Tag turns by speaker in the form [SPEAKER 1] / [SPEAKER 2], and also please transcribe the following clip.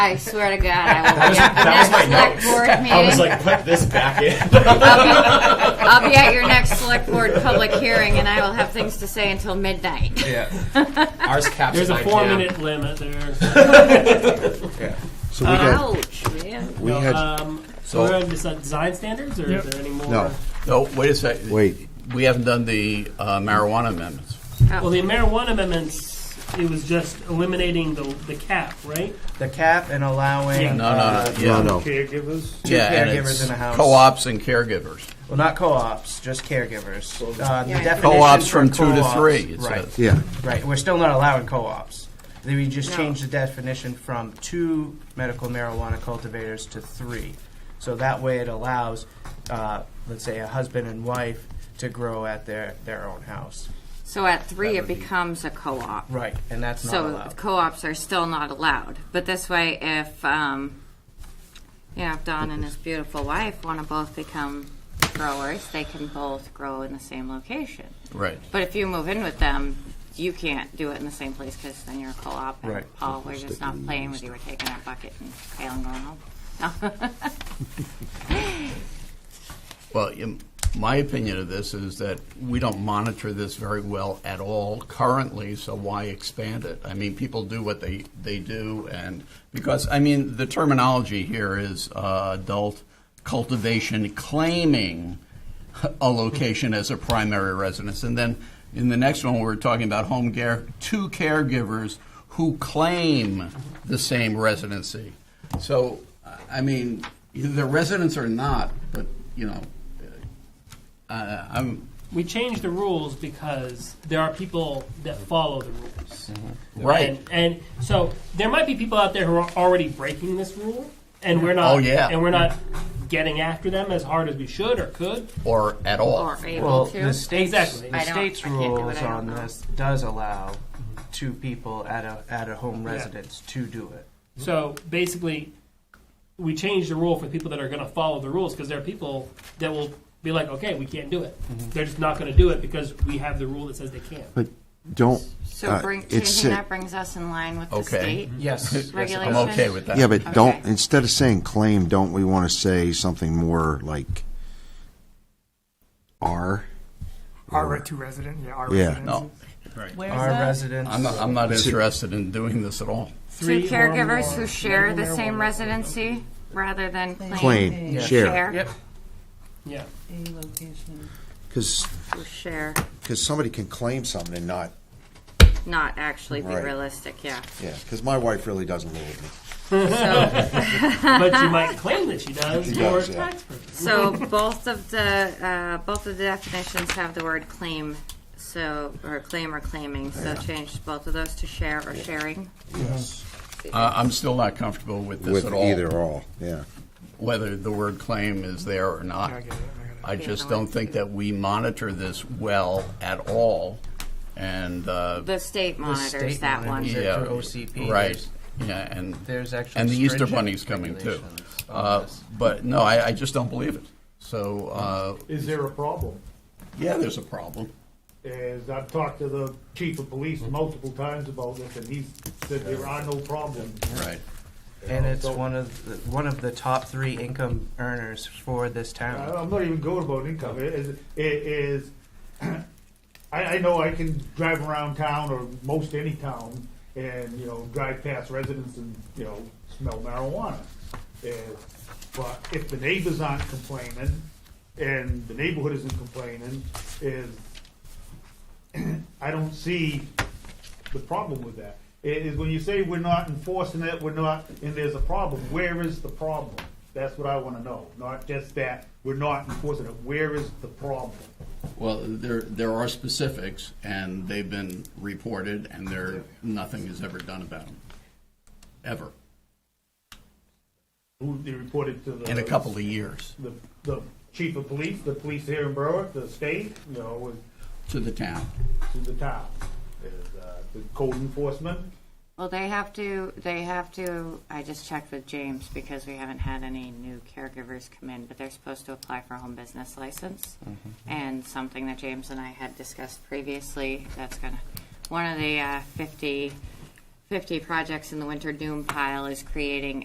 [SPEAKER 1] I swear to God, I will.
[SPEAKER 2] That was-
[SPEAKER 1] yeah,
[SPEAKER 2] that was my notes.
[SPEAKER 1] next select board
[SPEAKER 2] I was
[SPEAKER 1] meeting.
[SPEAKER 2] like, put this back in.
[SPEAKER 1] I'll, be, I'll be at your next select board public hearing, and I will have things to say until midnight.
[SPEAKER 2] Yeah. Ours caps
[SPEAKER 3] There's a
[SPEAKER 2] at 9
[SPEAKER 3] four
[SPEAKER 2] p.m.
[SPEAKER 3] minute limit there.
[SPEAKER 4] So we had,
[SPEAKER 1] Ouch, man.
[SPEAKER 4] we
[SPEAKER 5] Uh,
[SPEAKER 4] had,
[SPEAKER 3] Um, so
[SPEAKER 6] So-
[SPEAKER 3] we're on this uh, design standards, or
[SPEAKER 5] Yep.
[SPEAKER 3] is there any more?
[SPEAKER 4] No.
[SPEAKER 6] No, wait a second.
[SPEAKER 4] Wait.
[SPEAKER 6] We haven't done the uh, marijuana amendments.
[SPEAKER 3] Well, the marijuana amendments, it was just eliminating the, the cap, right?
[SPEAKER 7] The cap and allowing
[SPEAKER 3] Yeah.
[SPEAKER 6] No, no,
[SPEAKER 7] uh,
[SPEAKER 6] no.
[SPEAKER 4] no,
[SPEAKER 6] Yeah.
[SPEAKER 4] no.
[SPEAKER 5] Caregivers?
[SPEAKER 7] two
[SPEAKER 6] yeah, and
[SPEAKER 7] caregivers
[SPEAKER 6] it's
[SPEAKER 7] in a house.
[SPEAKER 6] Co-ops and caregivers.
[SPEAKER 7] well, not co-ops, just caregivers. Uh, the
[SPEAKER 1] Yeah.
[SPEAKER 7] definition
[SPEAKER 6] Co-ops
[SPEAKER 7] for
[SPEAKER 6] from two to
[SPEAKER 7] co-ops-
[SPEAKER 6] three, it
[SPEAKER 7] Right,
[SPEAKER 6] says.
[SPEAKER 4] Yeah,
[SPEAKER 7] right. We're still not allowing co-ops. Then We just
[SPEAKER 1] No.
[SPEAKER 7] changed the definition from two medical marijuana cultivators to three. So that way, it allows, uh, let's say, a husband and wife to grow at their their own house.
[SPEAKER 1] So at three,
[SPEAKER 7] That
[SPEAKER 1] it
[SPEAKER 7] would be-
[SPEAKER 1] becomes a co-op.
[SPEAKER 7] Right, and that's not
[SPEAKER 1] So
[SPEAKER 7] allowed.
[SPEAKER 1] co-ops are still not allowed. But this way, if um, you know, if Don and his beautiful wife want to both become growers, they can both grow in the same location.
[SPEAKER 6] Right.
[SPEAKER 1] But if you move in with them, you can't do it in the same place because then you're a co-op. And
[SPEAKER 7] Right.
[SPEAKER 1] Paul, we're just not playing with you. We're taking our bucket and pail and going home. No.
[SPEAKER 6] Well, in my opinion of this is that we don't monitor this very well at all currently, so why expand it? I mean, people do what they, they do, and because, I mean, the terminology here is uh, adult cultivation claiming a location as a primary residence. And then in the next one, we're talking about home care, two caregivers who claim the same residency. So, I mean, either residents or not, but, you know, uh, I'm,
[SPEAKER 3] We changed the rules because there are people that follow the rules.
[SPEAKER 6] right.
[SPEAKER 3] And, and so there might be people out there who are already breaking this rule, and we're not.
[SPEAKER 6] Oh, yeah.
[SPEAKER 3] And we're not getting after them as hard as we should or could.
[SPEAKER 6] Or at all.
[SPEAKER 1] or able
[SPEAKER 7] Well,
[SPEAKER 1] to.
[SPEAKER 7] the state's,
[SPEAKER 3] Exactly.
[SPEAKER 7] the
[SPEAKER 1] I don't-
[SPEAKER 7] state's
[SPEAKER 1] I can't do it,
[SPEAKER 7] rules
[SPEAKER 1] I don't
[SPEAKER 7] on
[SPEAKER 1] know.
[SPEAKER 7] this does allow two people at a, at a home residence to do it.
[SPEAKER 3] So basically, we changed the rule for people that are going to follow the rules because there are people that will be like, okay, we can't do it.
[SPEAKER 4] Mm-hmm.
[SPEAKER 3] They're just not going to do it because we have the rule that says they can't.
[SPEAKER 4] but don't.
[SPEAKER 1] so
[SPEAKER 4] uh,
[SPEAKER 1] bring,
[SPEAKER 4] it's
[SPEAKER 1] changing
[SPEAKER 4] sick.
[SPEAKER 1] that brings us in line with the
[SPEAKER 6] Okay.
[SPEAKER 1] state.
[SPEAKER 7] Yes. yes, it does.
[SPEAKER 1] Regulation.
[SPEAKER 6] I'm okay with that.
[SPEAKER 4] Yeah, but don't.
[SPEAKER 1] Okay.
[SPEAKER 4] Instead of saying claim, don't we want to say something more like are?
[SPEAKER 5] R to resident, yeah, R
[SPEAKER 4] Yeah.
[SPEAKER 5] resident.
[SPEAKER 6] No,
[SPEAKER 8] Where's
[SPEAKER 7] Our
[SPEAKER 8] that?
[SPEAKER 7] residents.
[SPEAKER 6] I'm not, I'm not interested in doing this at all.
[SPEAKER 1] Two
[SPEAKER 3] or
[SPEAKER 1] caregivers
[SPEAKER 3] more
[SPEAKER 1] who share the
[SPEAKER 3] marijuana.
[SPEAKER 1] same residency rather than claim,
[SPEAKER 4] Claim,
[SPEAKER 8] Yeah.
[SPEAKER 4] share.
[SPEAKER 7] Yep.
[SPEAKER 3] Yeah.
[SPEAKER 8] A location.
[SPEAKER 4] Because
[SPEAKER 1] who share,
[SPEAKER 4] somebody can claim something and not.
[SPEAKER 1] not actually be
[SPEAKER 4] Right.
[SPEAKER 1] realistic, yeah.
[SPEAKER 4] Yeah, because my wife really doesn't live with me.
[SPEAKER 3] but you might claim that she does
[SPEAKER 4] She
[SPEAKER 3] for
[SPEAKER 4] does, yeah.
[SPEAKER 3] tax purposes.
[SPEAKER 1] So both of the, uh, both of the definitions have the word claim, so, or claim or claiming, so change both of those to share or sharing.
[SPEAKER 4] Yes.
[SPEAKER 6] Uh, I'm still not comfortable with this
[SPEAKER 4] With
[SPEAKER 6] at all.
[SPEAKER 4] either or all. Yeah.
[SPEAKER 6] whether the word claim is there or not.
[SPEAKER 5] I get it, I get it.
[SPEAKER 6] I just don't think that we monitor this well at all, and, uh,
[SPEAKER 1] The state monitors
[SPEAKER 7] state
[SPEAKER 1] that one.
[SPEAKER 7] monitors.
[SPEAKER 6] yeah.
[SPEAKER 7] through OCP,
[SPEAKER 6] Right,
[SPEAKER 7] there's-
[SPEAKER 6] yeah, and,
[SPEAKER 7] There's actually
[SPEAKER 6] and the Easter
[SPEAKER 7] stringent
[SPEAKER 6] Bunny's coming too.
[SPEAKER 7] regulations on
[SPEAKER 6] Uh,
[SPEAKER 7] this.
[SPEAKER 6] But, no, I, I just don't believe it. So, uh,
[SPEAKER 5] Is there a problem?
[SPEAKER 6] yeah, there's a problem.
[SPEAKER 5] As I've talked to the chief of police multiple times about this, and he said there are no problems.
[SPEAKER 6] Right.
[SPEAKER 7] And it's one of the, one of the top three income earners for this
[SPEAKER 5] I-
[SPEAKER 7] town.
[SPEAKER 5] I'm not even going about income. It is, it is I, I know I can drive around town or most any town and, you know, drive past residents and, you know, smell marijuana. And, but if the neighbors aren't complaining and the neighborhood isn't complaining, is, I don't see the problem with that. It is when you say we're not enforcing it, we're not, and there's a problem, where is the problem? That's what I wanna know, not just that we're not enforcing it, where is the problem?
[SPEAKER 6] Well, there, there are specifics, and they've been reported, and there, nothing is ever done about them, ever,
[SPEAKER 5] Who they reported to the.
[SPEAKER 6] in a couple of years,
[SPEAKER 5] The, the chief of police, the police here in Berwick, the state, you know,
[SPEAKER 6] to the town.
[SPEAKER 5] and to the town. Is, uh, the code enforcement,
[SPEAKER 1] Well, they have to, they have to, I just checked with James because we haven't had any new caregivers come in, but they're supposed to apply for a home business license. And something that James and I had discussed previously, that's gonna, one of the uh, 50, 50 projects in the winter doom pile is creating